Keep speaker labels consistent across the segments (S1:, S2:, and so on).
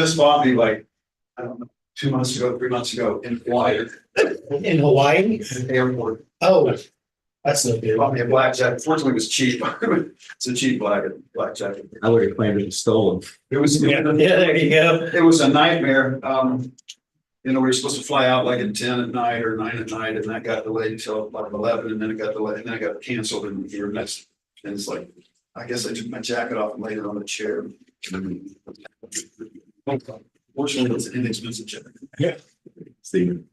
S1: just bought me like, I don't know, two months ago, three months ago in Hawaii,
S2: in Hawaii?
S1: at the airport.
S2: Oh, that's no
S1: They
S2: good.
S1: bought me a black jacket. Fortunately, it was cheap. It's a cheap black, black jacket.
S3: I would have claimed it was stolen.
S1: It was.
S2: Yeah, there you go.
S1: It was a nightmare. Um, you know, we were supposed to fly out like at ten at night or nine at night and that got delayed until about eleven and then it got delayed and then it got canceled and we were next. And it's like, I guess I took my jacket off and laid it on the chair.
S3: Mm-hmm.
S1: Fortunately, it's an inexpensive jacket.
S3: Stephen.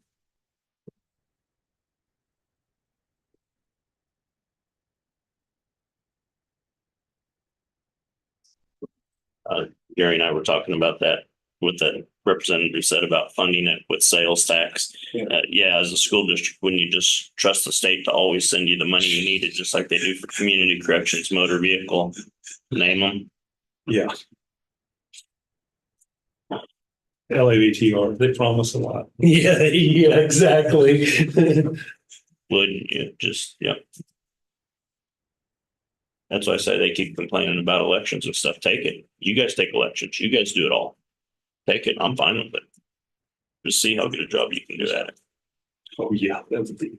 S4: Gary and I were talking about that, what the representative said about funding it with sales tax.
S1: Yeah.
S4: Uh, yeah, as a school district, wouldn't you just trust the state to always send you the money you needed, just like they do for community corrections, motor vehicle, name them?
S5: Yeah. LAVTR, they promise a lot.
S2: Yeah, yeah, exactly.
S4: Wouldn't you just, yeah. That's why I say they keep complaining about elections and stuff. Take it. You guys take elections. You guys do it all. Take it. I'm fine with it. Just see how good a job you can do at it.
S5: Oh, yeah, that would be.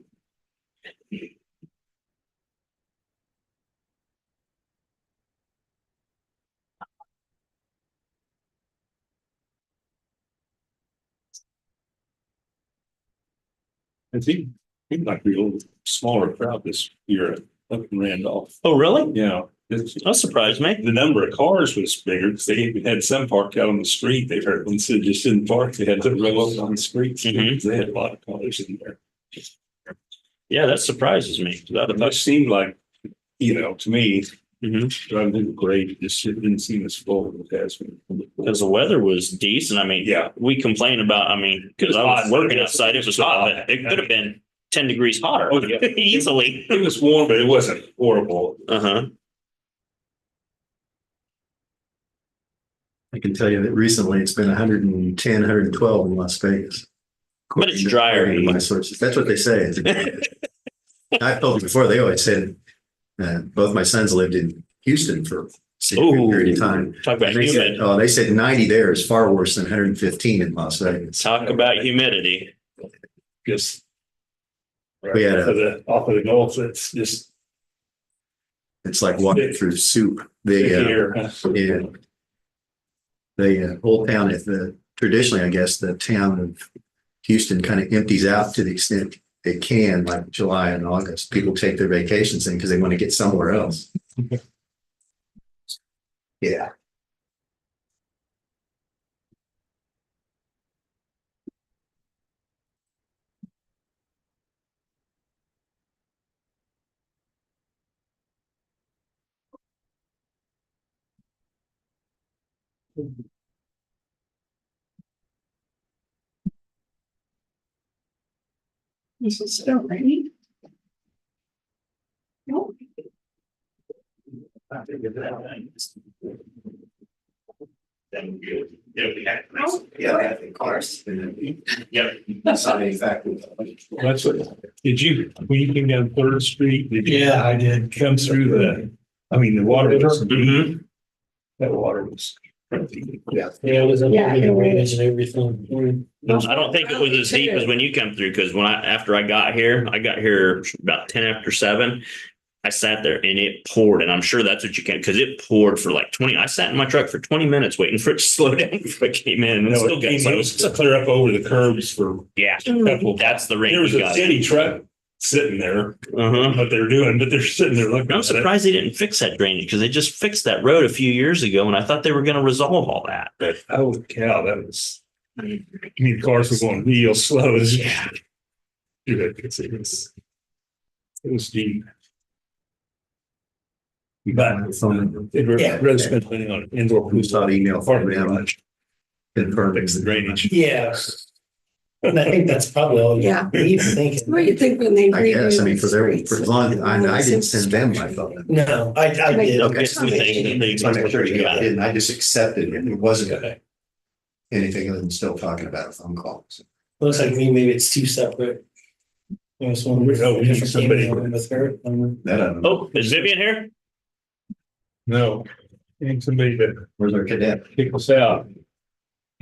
S5: It seemed, seemed like we were a smaller crowd this year up in Randolph.
S4: Oh, really?
S5: Yeah, it's-
S4: That surprised me.
S5: the number of cars was bigger because they even had some parked out on the street. They heard one said just didn't park. They had to roll up on the streets.
S4: Mhm.
S5: They had a lot of cars in there.
S4: Yeah, that surprises me. 'cause I'd
S5: But
S4: have
S5: it just seemed like, you know, to me,
S4: Mhm.
S5: driving through the grade, it just didn't seem as full as it has been.
S4: Because the weather was decent. I mean,
S5: Yeah,
S4: we complain about, I mean,
S5: It
S4: because
S5: was
S4: I was
S5: hot.
S4: working outside, it was hot, but it could have been ten degrees hotter
S5: Oh, yeah.
S4: easily.
S5: it was warm, but it wasn't horrible.
S4: Uh huh.
S3: I can tell you that recently it's been 110, 112 in Las Vegas.
S4: But it's drier.
S3: According to My sources, that's what they say. I've told you before, they always said, uh, both my sons lived in Houston for a significant period of time.
S4: Talk about
S3: And They said,
S4: humid.
S3: oh, they said ninety there is far worse than hundred and fifteen in Las Vegas.
S4: Talk about humidity.
S5: Just.
S3: We had a-
S5: Off of the- Off of the Gulf, it's just
S3: It's like walking through soup. The, uh,
S5: here.
S3: yeah. The uh, whole town, if the, traditionally, I guess, the town of Houston kind of empties out to the extent it can, like July and August. People take their vacations in because they want to get somewhere else. Yeah.
S6: This is still raining. No,
S3: Yeah.
S6: of course.
S3: Deciding factor.
S5: That's what, did you, when you came down Third Street? did you
S2: Yeah, I did. Mm-hmm.
S5: Come through the, I mean, the water was,
S4: Mhm.
S5: that water was.
S2: Yeah, it was under
S6: Yeah, it
S2: the
S6: was.
S2: range and everything.
S4: I don't think it was as deep as when you come through, because when I, after I got here, I got here about ten after seven. I sat there and it poured, and I'm sure that's what you can, because it poured for like twenty, I sat in my truck for twenty minutes waiting for it to slow down before I came in. and
S5: No,
S4: it
S5: it
S4: still got
S5: came- it was
S4: close.
S5: clear up over the curbs for
S4: Yeah,
S5: a couple.
S4: that's the
S5: There
S4: range.
S5: was
S4: you
S5: a
S4: got.
S5: city truck sitting there,
S4: Uh-huh.
S5: what they're doing, but they're sitting there looking.
S4: I'm
S5: at it.
S4: surprised they didn't fix that drainage because they just fixed that road a few years ago and I thought they were going to resolve all that. But
S5: Holy cow, that was, I mean, cars were going real slow. It was- Dude, it was- it was, it was deep. But it was,
S2: Yeah.
S5: Rose been planning on indoor
S3: We
S5: pool.
S3: saw the email from
S5: Apartment
S3: them.
S5: garage,
S3: Confirming
S5: fix the drainage.
S2: Yeah. And I think that's probably all you
S6: Yeah.
S2: need to think.
S6: What do you think when they?
S3: I guess, I mean, for their,
S6: redo
S3: for
S6: the
S3: as long, as I, I didn't
S6: streets and
S3: send them my phone.
S2: No, I, I did.
S4: Okay.
S3: So I'm sure you got it. And I just accepted it. It wasn't
S2: Okay.
S3: anything other than still talking about a phone call. So
S2: Looks like me, maybe it's two separate. There was one.
S5: We know we need somebody.
S2: Email With her. um,
S3: That, I don't know.
S4: oh, is Vivian here?
S5: No, and somebody to
S3: where's our cadet?
S5: kick us out.